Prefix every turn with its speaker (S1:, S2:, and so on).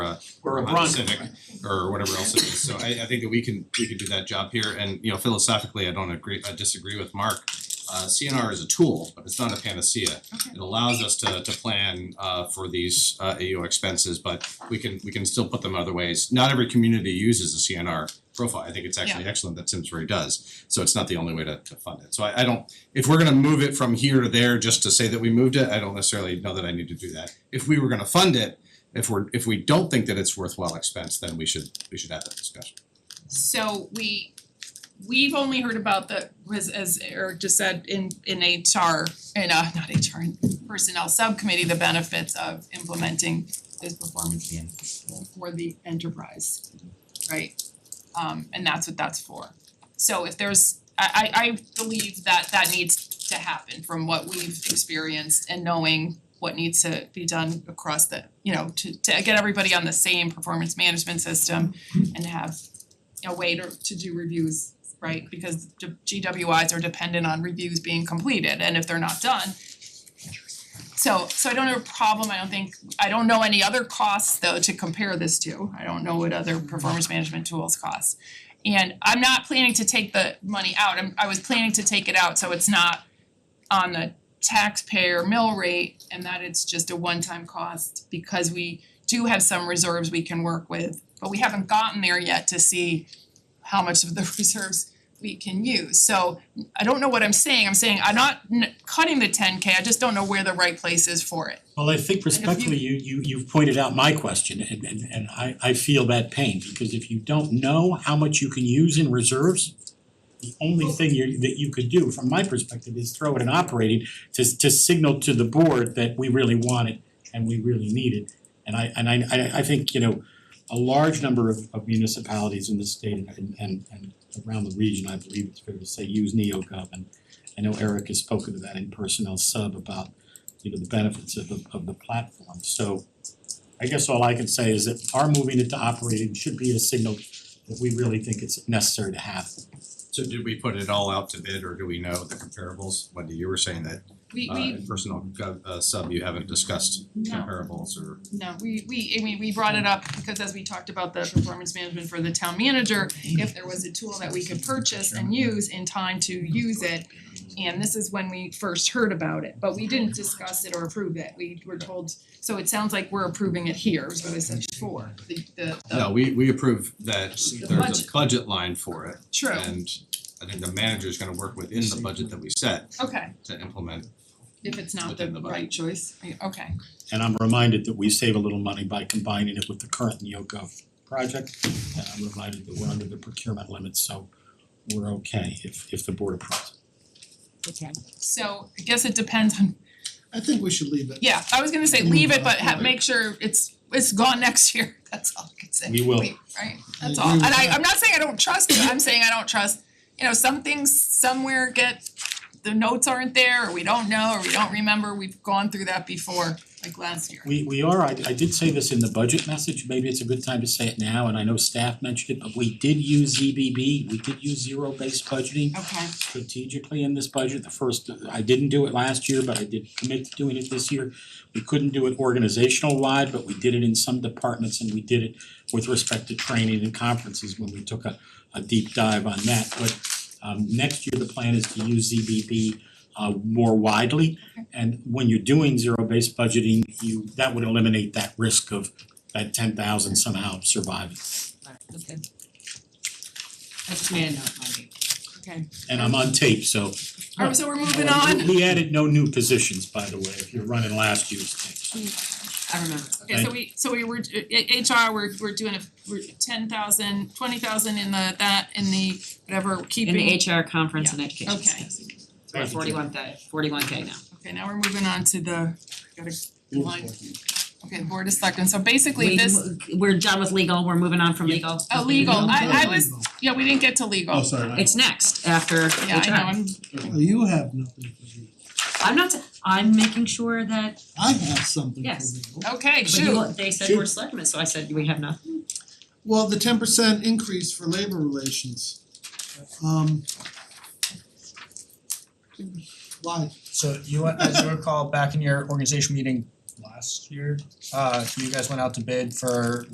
S1: or a
S2: on
S1: brunt.
S2: Civic or whatever else it is. So I I think that we can we can do that job here and you know philosophically, I don't agree, I disagree with Mark. Uh CNR is a tool, but it's not a panacea.
S3: Okay.
S2: It allows us to to plan uh for these uh AO expenses, but we can we can still put them other ways. Not every community uses a CNR profile. I think it's actually excellent that Simsbury does. So it's not the only way to to fund it. So I I don't if we're gonna move it from here to there just to say that we moved it, I don't necessarily know that I need to do that. If we were gonna fund it, if we're if we don't think that it's worthwhile expense, then we should we should have that discussion.
S3: So we we've only heard about the was as Eric just said in in HR in uh not HR in personnel subcommittee, the benefits of implementing this performance management for the enterprise, right? Um and that's what that's for. So if there's I I I believe that that needs to happen from what we've experienced and knowing what needs to be done across the, you know, to to get everybody on the same performance management system and have a way to to do reviews, right? Because the GWIs are dependent on reviews being completed and if they're not done. So so I don't have a problem, I don't think, I don't know any other costs though to compare this to. I don't know what other performance management tools cost. And I'm not planning to take the money out, I'm I was planning to take it out, so it's not on the taxpayer mill rate and that it's just a one-time cost because we do have some reserves we can work with, but we haven't gotten there yet to see how much of the reserves we can use. So I don't know what I'm saying. I'm saying I'm not n- cutting the ten K, I just don't know where the right place is for it.
S4: Well, I think
S3: if you-
S4: respectfully, you you you've pointed out my question and and and I I feel that pain because if you don't know how much you can use in reserves, the only thing you that you could do from my perspective is throw it in operating to to signal to the board that we really want it and we really need it. And I and I I I think, you know, a large number of of municipalities in the state and and and around the region, I believe it's fair to say, use NeoGov and I know Eric has spoken to that in personnel sub about you know, the benefits of the of the platform. So I guess all I can say is that our moving it to operating should be a signal that we really think it's necessary to have.
S2: So did we put it all out to bid or do we know the comparables? Wendy, you were saying that
S3: We
S2: uh
S3: we,
S2: in personal gov- uh sub, you haven't discussed
S3: no,
S2: comparables or
S3: no, we we, I mean, we brought it up because as we talked about the performance management for the town manager, if there was a tool that we could purchase and use in time to use it, and this is when we first heard about it, but we didn't discuss it or approve it. We were told, so it sounds like we're approving it here, is what I said before, the the the
S2: No, we we approve that
S3: The
S2: there's a
S3: budget.
S2: budget line for it.
S3: True,
S2: And I think the manager's gonna work within the budget that we set
S3: okay,
S2: to implement.
S3: if it's not the
S2: Within the budget.
S3: right choice, I- okay,
S4: And I'm reminded that we save a little money by combining it with the current NeoGov project. And I'm reminded that we're under the procurement limit, so we're okay if if the board approves.
S3: so I guess it depends on,
S5: I think we should leave it.
S3: yeah, I was gonna say
S5: Move
S3: leave it,
S5: on,
S3: but ha-
S5: right.
S3: make sure it's it's gone next year, that's all I can say.
S4: We will.
S3: Wait, Right, that's
S5: I
S3: all, and
S5: agree with
S3: I
S5: that.
S3: I'm not saying I don't trust you, I'm saying I don't trust, you know, some things somewhere get the notes aren't there, or we don't know, or we don't remember, we've gone through that before, like last year.
S4: We we are, I I did say this in the budget message, maybe it's a good time to say it now, and I know staff mentioned it, but we did use ZBB, we did use zero-based budgeting.
S3: Okay,
S4: strategically in this budget, the first, I didn't do it last year, but I did commit to doing it this year. We couldn't do it organizational wide, but we did it in some departments and we did it with respect to training and conferences when we took a a deep dive on that, but um next year, the plan is to use ZBB uh more widely. And when you're doing zero-based budgeting, you, that would eliminate that risk of that ten thousand somehow surviving.
S6: Alright, okay. I just made a note, Marty.
S3: okay,
S4: And I'm on tape, so
S3: alright, so we're moving
S4: Oh,
S3: on.
S4: and We we added no new positions, by the way, if you're running last year's tapes.
S6: I remember.
S3: Okay, so we, so we were, i- HR, we're we're doing a, we're ten thousand, twenty thousand in the, that, in the, whatever, keeping.
S6: In the HR conference and education.
S3: Okay.
S6: So we're forty-one K, forty-one K now.
S3: Okay, now we're moving on to the, gotta, line,
S5: Move
S3: okay, Board of Selectmen, so basically
S6: We
S3: this,
S6: mo- We're done with legal, we're moving on from
S4: Yeah.
S6: legal.
S3: Oh, legal. I- I
S5: forward.
S3: was- yeah, we didn't get to legal.
S5: Oh, sorry.
S6: It's next after HR.
S3: Yeah, I know, I'm,
S5: Well, You have nothing for me.
S6: I'm not, s- I'm making sure that,
S5: I have something for me.
S6: Yes.
S3: okay,
S6: but you,
S3: shoot,
S6: they said
S4: Shoot.
S6: we're selectmen, so I said we have nothing.
S5: Well, the ten percent increase for labor relations. Um. Why?
S7: So you, as you recall, back in your organization meeting last year, uh, you guys went out to bid for